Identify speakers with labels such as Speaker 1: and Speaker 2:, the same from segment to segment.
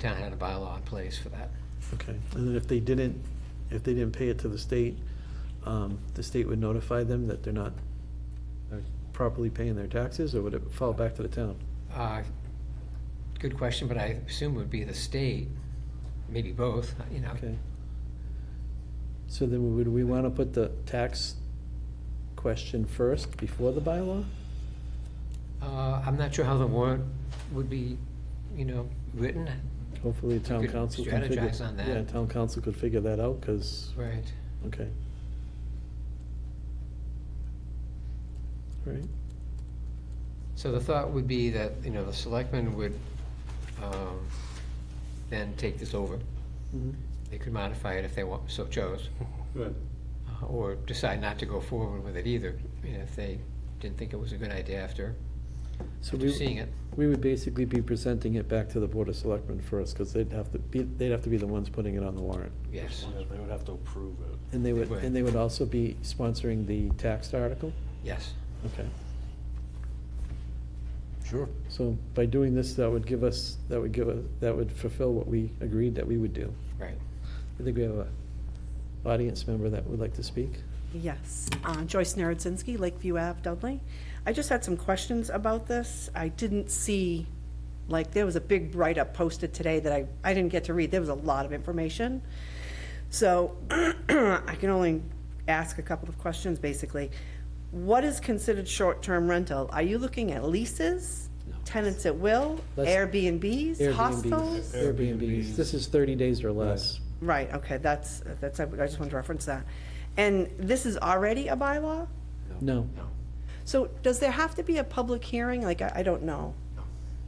Speaker 1: town had a bylaw in place for that.
Speaker 2: Okay, and then if they didn't, if they didn't pay it to the state, um, the state would notify them that they're not they're properly paying their taxes, or would it fall back to the town?
Speaker 1: Uh, Good question, but I assume it would be the state, maybe both, you know.
Speaker 2: Okay. So then would we want to put the tax question first before the bylaw?
Speaker 1: Uh, I'm not sure how the warrant would be, you know, written.
Speaker 2: Hopefully, the town
Speaker 1: could
Speaker 2: council can figure.
Speaker 1: strategize on that.
Speaker 2: Yeah, town council could figure that out, because,
Speaker 1: Right.
Speaker 2: okay. All right,
Speaker 1: So the thought would be that, you know, the selectmen would um, then take this over.
Speaker 2: mhm,
Speaker 1: They could modify it if they want, so chose,
Speaker 3: Good.
Speaker 1: uh, or decide not to go forward with it either, you know, if they didn't think it was a good idea after
Speaker 2: so
Speaker 1: after
Speaker 2: we.
Speaker 1: seeing it.
Speaker 2: We would basically be presenting it back to the Board of Selectmen first, because they'd have to be, they'd have to be the ones putting it on the warrant.
Speaker 1: Yes,
Speaker 3: They would have to approve it.
Speaker 2: And they would,
Speaker 1: Right.
Speaker 2: and they would also be sponsoring the taxed article?
Speaker 1: yes.
Speaker 2: Okay.
Speaker 3: Sure.
Speaker 2: So by doing this, that would give us, that would give, us that would fulfill what we agreed that we would do.
Speaker 1: Right.
Speaker 2: I think we have a audience member that would like to speak.
Speaker 4: Yes, Uh, Joyce Narodzinski, Lakeview Ave, Dudley. I just had some questions about this. I didn't see, like, there was a big write-up posted today that I, I didn't get to read. There was a lot of information. So I can only ask a couple of questions, basically. What is considered short-term rental? Are you looking at leases, tenants at will,
Speaker 2: That's-
Speaker 4: Airbnbs,
Speaker 2: Airbnbs.
Speaker 4: hostels?
Speaker 2: Airbnbs, this is thirty days or less.
Speaker 4: Right, okay, that's, that's, I just wanted to reference that. And this is already a bylaw?
Speaker 2: No,
Speaker 4: So does there have to be a public hearing? Like, I, I don't know.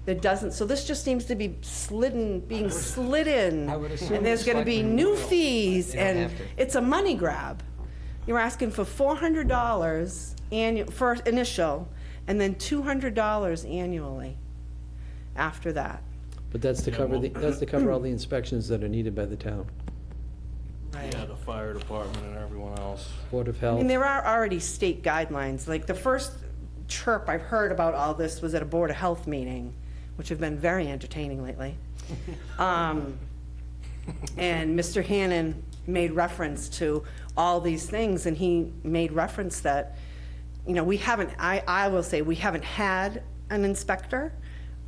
Speaker 4: There doesn't, so this just seems to be slidden, being slid in.
Speaker 1: I would assume
Speaker 4: And there's
Speaker 1: the
Speaker 4: gonna be
Speaker 1: selectmen
Speaker 4: new
Speaker 1: will.
Speaker 4: fees
Speaker 1: They don't
Speaker 4: and
Speaker 1: have to.
Speaker 4: it's a money grab. You're asking for four hundred dollars annual, first initial, and then two hundred dollars annually after that.
Speaker 2: but that's to
Speaker 3: Yeah,
Speaker 2: cover, the
Speaker 3: well-
Speaker 2: that's to cover all the inspections that are needed by the town.
Speaker 3: Yeah, the fire department and everyone else.
Speaker 2: Board of
Speaker 4: I
Speaker 2: Health.
Speaker 4: mean, there are already state guidelines, like the first chirp I've heard about all this was at a Board of Health meeting, which have been very entertaining lately. Um, And Mr. Hannon made reference to all these things, and he made reference that, you know, we haven't, I, I will say, we haven't had an inspector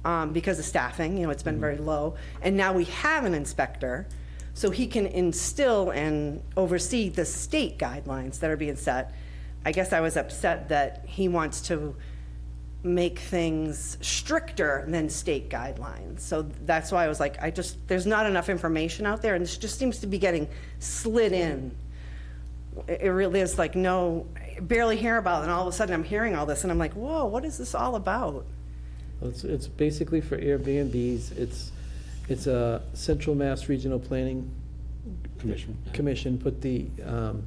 Speaker 4: um, because of staffing, you know, it's been very low. And now we have an inspector, so he can instill and oversee the state guidelines that are being set. I guess I was upset that he wants to make things stricter than state guidelines. So that's why I was like, I just, there's not enough information out there, and this just seems to be getting slid in. It it really is like, no, I barely hear about it, and all of a sudden I'm hearing all this, and I'm like, whoa, what is this all about?
Speaker 2: It's, it's basically for Airbnbs, it's, it's a Central Mass Regional Planning. Commission. Commission put the um,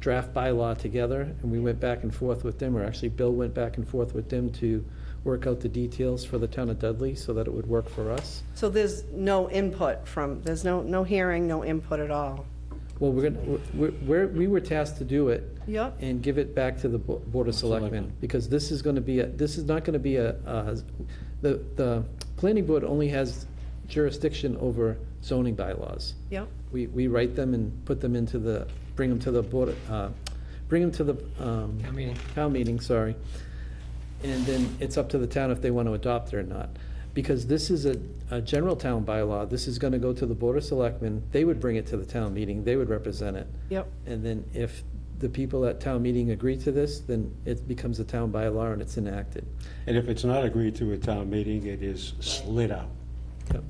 Speaker 2: draft bylaw together, and we went back and forth with them, or actually Bill went back and forth with them to work out the details for the town of Dudley, so that it would work for us.
Speaker 4: So there's no input from, there's no, no hearing, no input at all.
Speaker 2: Well, we're gonna, we're, we're- we were tasked to do it.
Speaker 4: Yep.
Speaker 2: And give it back to the Bo- Board of Selectmen, because this is gonna be, a this is not gonna be a, a- the, the planning board only has jurisdiction over zoning bylaws.
Speaker 4: Yep.
Speaker 2: We, we write them and put them into the, bring them to the board, uh, bring them to the, um.
Speaker 1: Town meeting.
Speaker 2: Town meeting, sorry. And then it's up to the town if they want to adopt it or not. Because this is a, a general town bylaw, this is gonna go to the Board of Selectmen, they would bring it to the town meeting, they would represent it.
Speaker 4: Yep.
Speaker 2: And then if the people at town meeting agree to this, then it becomes a town bylaw and it's enacted.
Speaker 5: And if it's not agreed to at town meeting, it is slid out.
Speaker 2: Yep.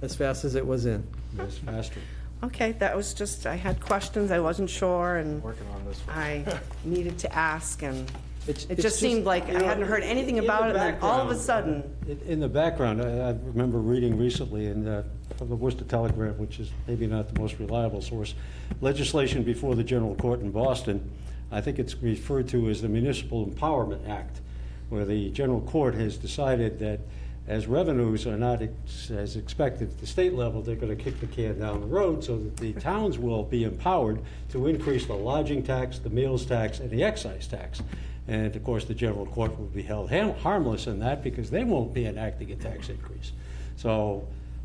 Speaker 2: As fast as it was in.
Speaker 5: It's faster.
Speaker 4: Okay, that was just, I had questions, I wasn't sure, and
Speaker 3: Working on this one.
Speaker 4: I needed to ask, and
Speaker 2: It's-
Speaker 4: it
Speaker 2: it's
Speaker 4: just seemed like I hadn't heard anything
Speaker 5: In the
Speaker 4: about it, and then all of a
Speaker 5: background,
Speaker 4: sudden.
Speaker 5: in- In the background, I I remember reading recently in the from the Worcester Telegraph, which is maybe not the most reliable source, legislation before the general court in Boston, I think it's referred to as the Municipal Empowerment Act, where the general court has decided that as revenues are not ex- as expected at the state level, they're going to kick the can down the road so that the towns will be empowered to increase the lodging tax, the meals tax, and the excise tax. And of course, the general court will be held ha- harmless in that because they won't be enacting a tax increase. So